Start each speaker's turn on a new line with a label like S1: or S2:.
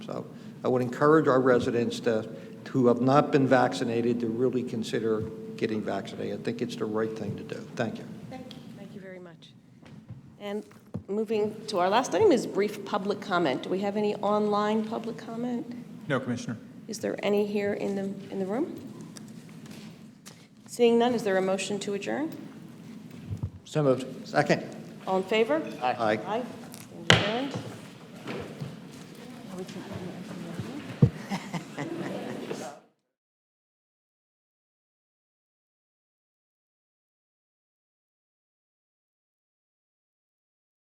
S1: So I would encourage our residents to, who have not been vaccinated, to really consider getting vaccinated. I think it's the right thing to do. Thank you.
S2: Thank you. Thank you very much. And moving to our last item is brief public comment. Do we have any online public comment?
S3: No, Commissioner.
S2: Is there any here in the, in the room? Seeing none, is there a motion to adjourn?
S1: So moved. Second.
S2: All in favor?
S1: Aye.
S2: Aye. Stand adjourned.